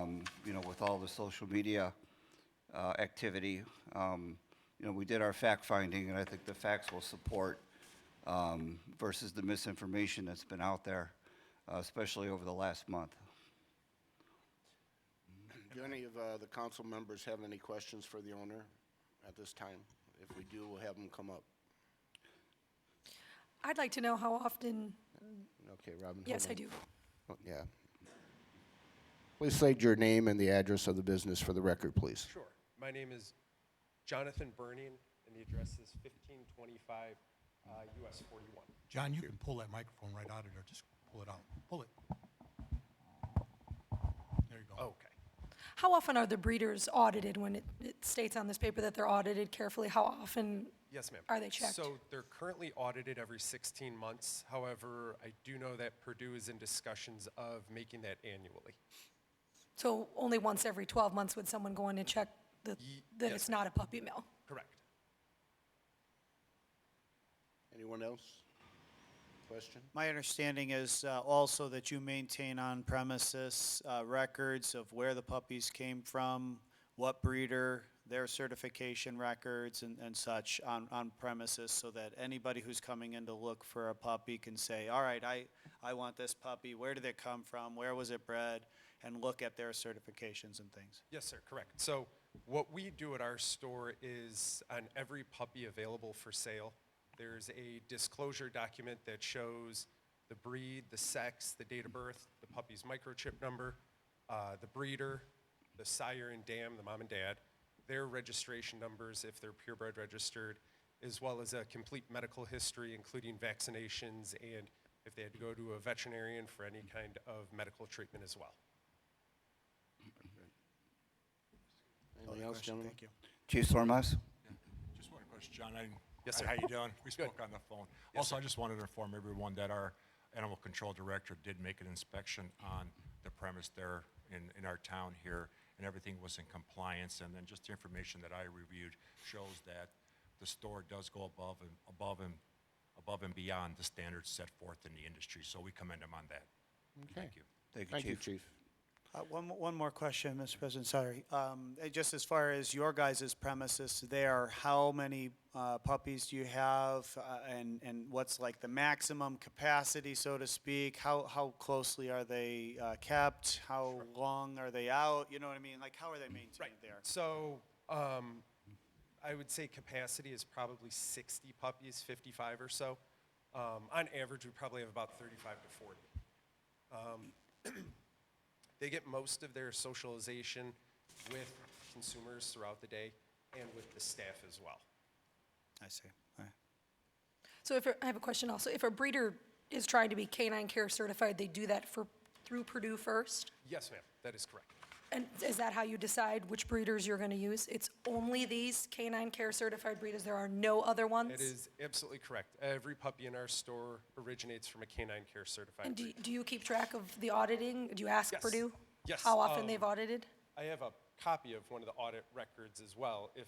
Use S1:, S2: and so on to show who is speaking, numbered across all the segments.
S1: um, know, with all the social media uh, activity, um, you know, we did our fact finding, and I think the facts will support um, versus the misinformation that's been out there, uh, especially over the last month.
S2: Do any of uh, the council members have any questions for the owner at this time? If we do, we'll have them come up.
S3: I'd like to know how often,
S2: Okay, Robin?
S3: yes,
S2: hold
S3: I
S2: on.
S3: do.
S2: Oh, Yeah. Please state your name and the address of the business for the record, please.
S4: Sure. My name is Jonathan Burning, and the address is 1525 uh, US 41.
S5: John, you can pull that microphone right out of there. Just pull it out. Pull it. There you go.
S4: Okay.
S3: How often are the breeders audited when it, it states on this paper that they're audited carefully? How often?
S4: Yes, ma'am.
S3: Are they checked?
S4: So they're currently audited every 16 months. However, I do know that Purdue is in discussions of making that annually.
S3: So only once every 12 months would someone go in and check that,
S4: Ye-
S3: that
S4: yes,
S3: it's
S4: ma'am.
S3: not a puppy mill?
S4: Correct.
S2: Anyone else? Question?
S6: My understanding is uh, also that you maintain on-premises uh, records of where the puppies came from, what breeder, their certification records and and such on on premises, so that anybody who's coming in to look for a puppy can say, all right, I, I want this puppy, where did it come from, where was it bred, and look at their certifications and things.
S4: Yes, sir, correct. So what we do at our store is on every puppy available for sale, there's a disclosure document that shows the breed, the sex, the date of birth, the puppy's microchip number, uh, the breeder, the sire and dam, the mom and dad, their registration numbers if they're purebred registered, as well as a complete medical history, including vaccinations and if they had to go to a veterinarian for any kind of medical treatment as well.
S2: Anything else, gentlemen?
S6: Thank you.
S1: Chief Sormas?
S7: Just one question, John. I-
S4: Yes,
S7: I-
S4: sir.
S7: How you doing? We spoke on the phone. Also, I just wanted to inform everyone that our animal control director did make an inspection on the premise there in, in our town here, and everything was in compliance. And then just the information that I reviewed shows that the store does go above and, above and, above and beyond the standards set forth in the industry. So we commend them on that. Thank you.
S1: Thank you,
S2: Thank you,
S1: Chief.
S2: chief.
S6: Uh, One, mo- one more question, Mr. President, sorry. Um, eh, Just as far as your guys' premises there, how many uh, puppies do you have? uh, And, and what's like the maximum capacity, so to speak? How, how closely are they uh, kept? How long are they out? You know what I mean? Like, how are they maintained there?
S4: So um, I would say capacity is probably 60 puppies, 55 or so. Um, on average, we probably have about 35 to 40. Um, they get most of their socialization with consumers throughout the day and with the staff as well.
S6: I see. All right.
S3: So if, a- I have a question also, if a breeder is trying to be canine care certified, they do that for, through Purdue first?
S4: Yes, ma'am, that is correct.
S3: And is that how you decide which breeders you're going to use? It's only these canine care certified breeders? There are no other ones?
S4: That is absolutely correct. Every puppy in our store originates from a canine care certified.
S3: And do,
S4: breed.
S3: do you keep track of the auditing? Do you ask
S4: Yes.
S3: Purdue?
S4: Yes,
S3: How often
S4: um,
S3: they've audited?
S4: I have a copy of one of the audit records as well, if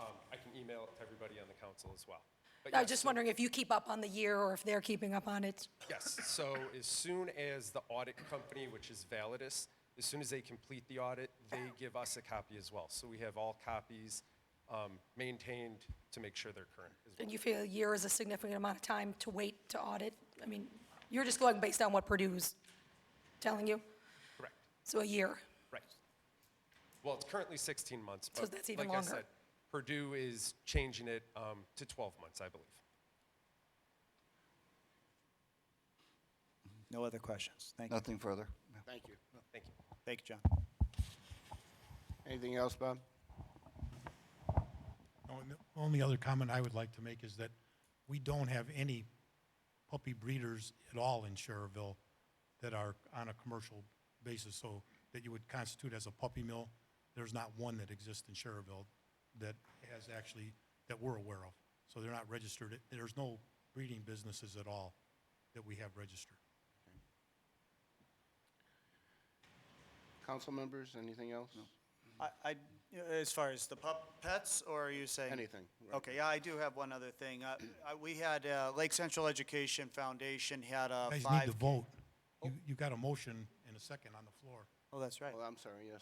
S4: um, I can email it to everybody on the council as well. But
S3: I
S4: uh, yes,
S3: was just
S4: so-
S3: wondering if you keep up on the year or if they're keeping up on it.
S4: Yes, so as soon as the audit company, which is Validus, as soon as they complete the audit, they give us a copy as well. So we have all copies um, maintained to make sure they're current as well.
S3: And you feel a year is a significant amount of time to wait to audit? I mean, you're just going based on what Purdue's telling you?
S4: Correct,
S3: So a year.
S4: right. Well, it's currently 16 months,
S3: So
S4: but
S3: that's even
S4: like I
S3: longer.
S4: said, Purdue is changing it um, to 12 months, I believe.
S6: No other questions? Thank you.
S1: Nothing further.
S2: Thank you.
S4: Thank you.
S6: Thank you, John.
S2: Anything else, Bob?
S5: No, and the Only other comment I would like to make is that we don't have any puppy breeders at all in Sherrville that are on a commercial basis, so that you would constitute as a puppy mill. There's not one that exists in Sherrville that has actually, that we're aware of. So they're not registered. There's no breeding businesses at all that we have registered.
S2: Council members, anything else?
S6: I, I- as far as the pup, pets, or are you saying?
S2: Anything.
S6: Okay, yeah, I do have one other thing. Uh, uh, We had, uh, Lake Central Education Foundation had a
S5: Guys need
S6: uh, five.
S5: to vote. You, you got a motion and a second on the floor.
S6: Oh, that's right.
S2: Well, I'm sorry, yes.